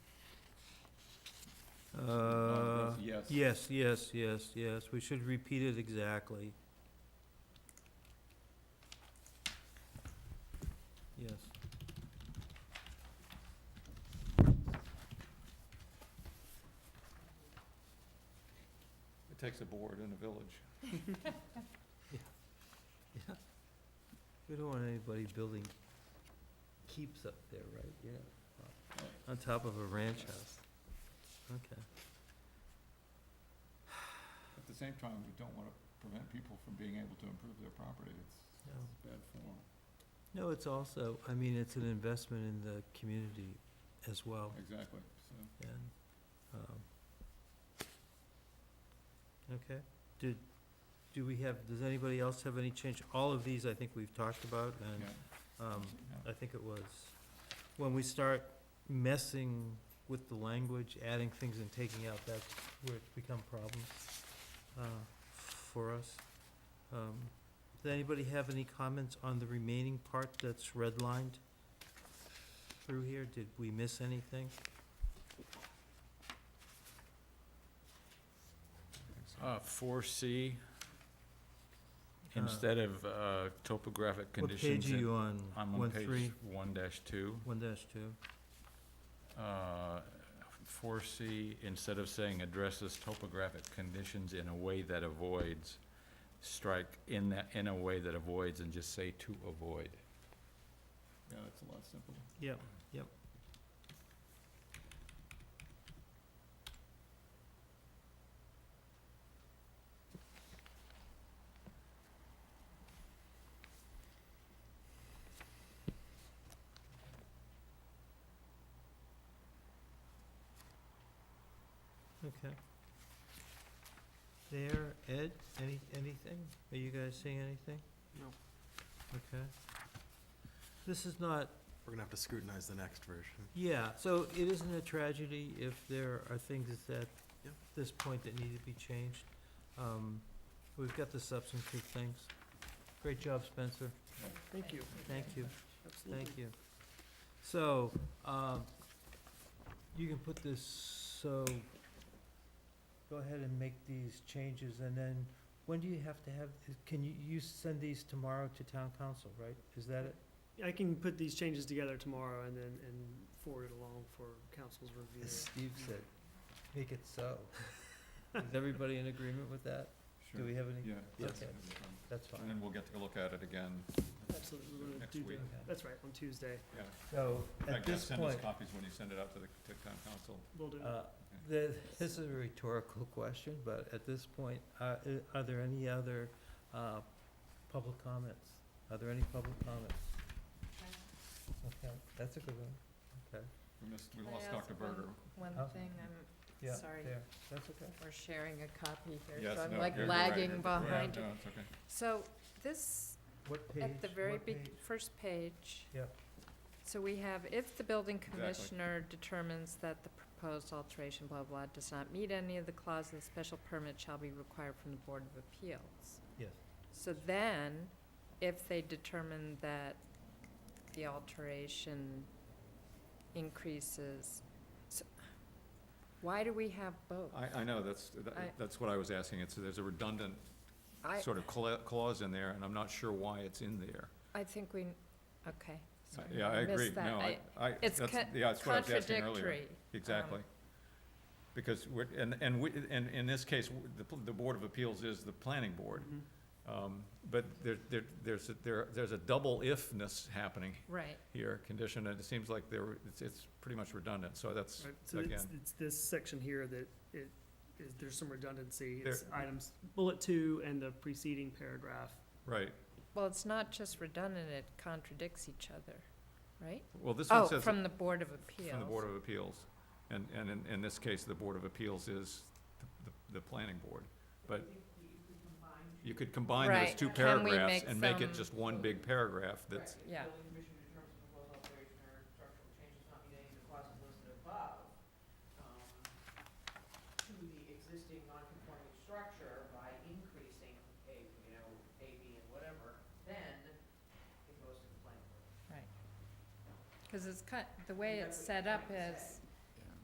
Uh, Yes. Yes, yes, yes, yes, we should repeat it exactly. Yes. It takes a board in a village. Yeah. We don't want anybody building keeps up there, right? Yeah. On top of a ranch house. Okay. At the same time, we don't want to prevent people from being able to improve their property. It's No. it's bad form. No, it's also, I mean, it's an investment in the community as well, Exactly, so. and, um, okay, did, do we have, does anybody else have any change? All of these I think we've talked about, and, yeah, um, yeah. I think it was, when we start messing with the language, adding things and taking out, that's where it's become problems, uh, for us. Um, does anybody have any comments on the remaining part that's redlined through here? Did we miss anything? Uh, four C, Uh, instead of, uh, topographic What page conditions. are in- you on? I'm One on page three, one dash two. one dash two? Uh, four C, instead of saying addresses topographic conditions in a way that avoids, strike in that, in a way that avoids and just say to avoid. Yeah, it's a lot simpler. Yep, yep. Okay. There, Ed, any, anything? Are you guys seeing anything? No. Okay. This is not We're gonna have to scrutinize the next version. yeah, so it isn't a tragedy if there are things at Yep. this point that need to be changed. Um, We've got the substantive things. Great job, Spencer. Thank you. Thank you. Thank you. So, um, you can put this, so, go ahead and make these changes, and then, when do you have to have, can you, you send these tomorrow to town council, right? Is that it? I can put these changes together tomorrow and then, and forward it along for council's review. As Steve said, make it so. Is everybody in agreement with that? Do Sure. we have any? Yeah. Yes. that's- that's fine. That's And fine. then we'll get to look at it again. Absolutely, we're gonna Next do week. that. Okay. That's right, on Tuesday, Yeah. So In at fact, yeah, this Send point, us copies when you send it out to the to town council. we'll do. uh, the, this is a rhetorical question, but at this point, uh, i- are there any other, uh, public comments? Are there any public comments? Okay, that's a good one. Okay. We missed, we Can I lost ask Dr. Berger. One Oh. thing, Yeah, I'm sorry, there, that's okay. we're sharing a copy here, Yes, so I'm no, like you're- you're right, you're- lagging you're right. behind. No, it's okay. So this, What page? at the very what big, page? first page. Yeah. So we have, if the building Exactly. commissioner determines that the proposed alteration, blah, blah, does not meet any of the clauses, the special permit shall be required from the Board of Appeals. Yes. So then, if they determine that the alteration increases, so, why do we have both? I, I know, that's, that- I- that's what I was asking. It's, there's a redundant I, sort of cla- clause in there, and I'm not sure why it's in there. I think we, okay, Uh, sorry. Yeah, I missed agree. that. No, I, I- I, It's that's, co- yeah, that's what I was asking earlier. contradictory. um, Exactly. Because we're, and, and we, and in this case, w- the, pl- the Board of Appeals is the planning board. Mhm. Um, But there, there, there's, a- there, there's a double ifness happening Right, here, condition, and it seems like there, it's, it's pretty much redundant, so that's, Right, So it's, again. it's this section here that it, is, there's some redundancy. There- It's items, bullet two and the preceding paragraph. right. well, it's not just redundant, it contradicts each other, right? Well, this Oh, one says, from the Board of from the Appeals. Board of Appeals. And, and in, in this case, the Board of Appeals is the, the, the planning board, but you could combine those Right. two Can we paragraphs make and make it some- just one big paragraph that's, Yeah, um, right. Because it's cut, the way it's set up is,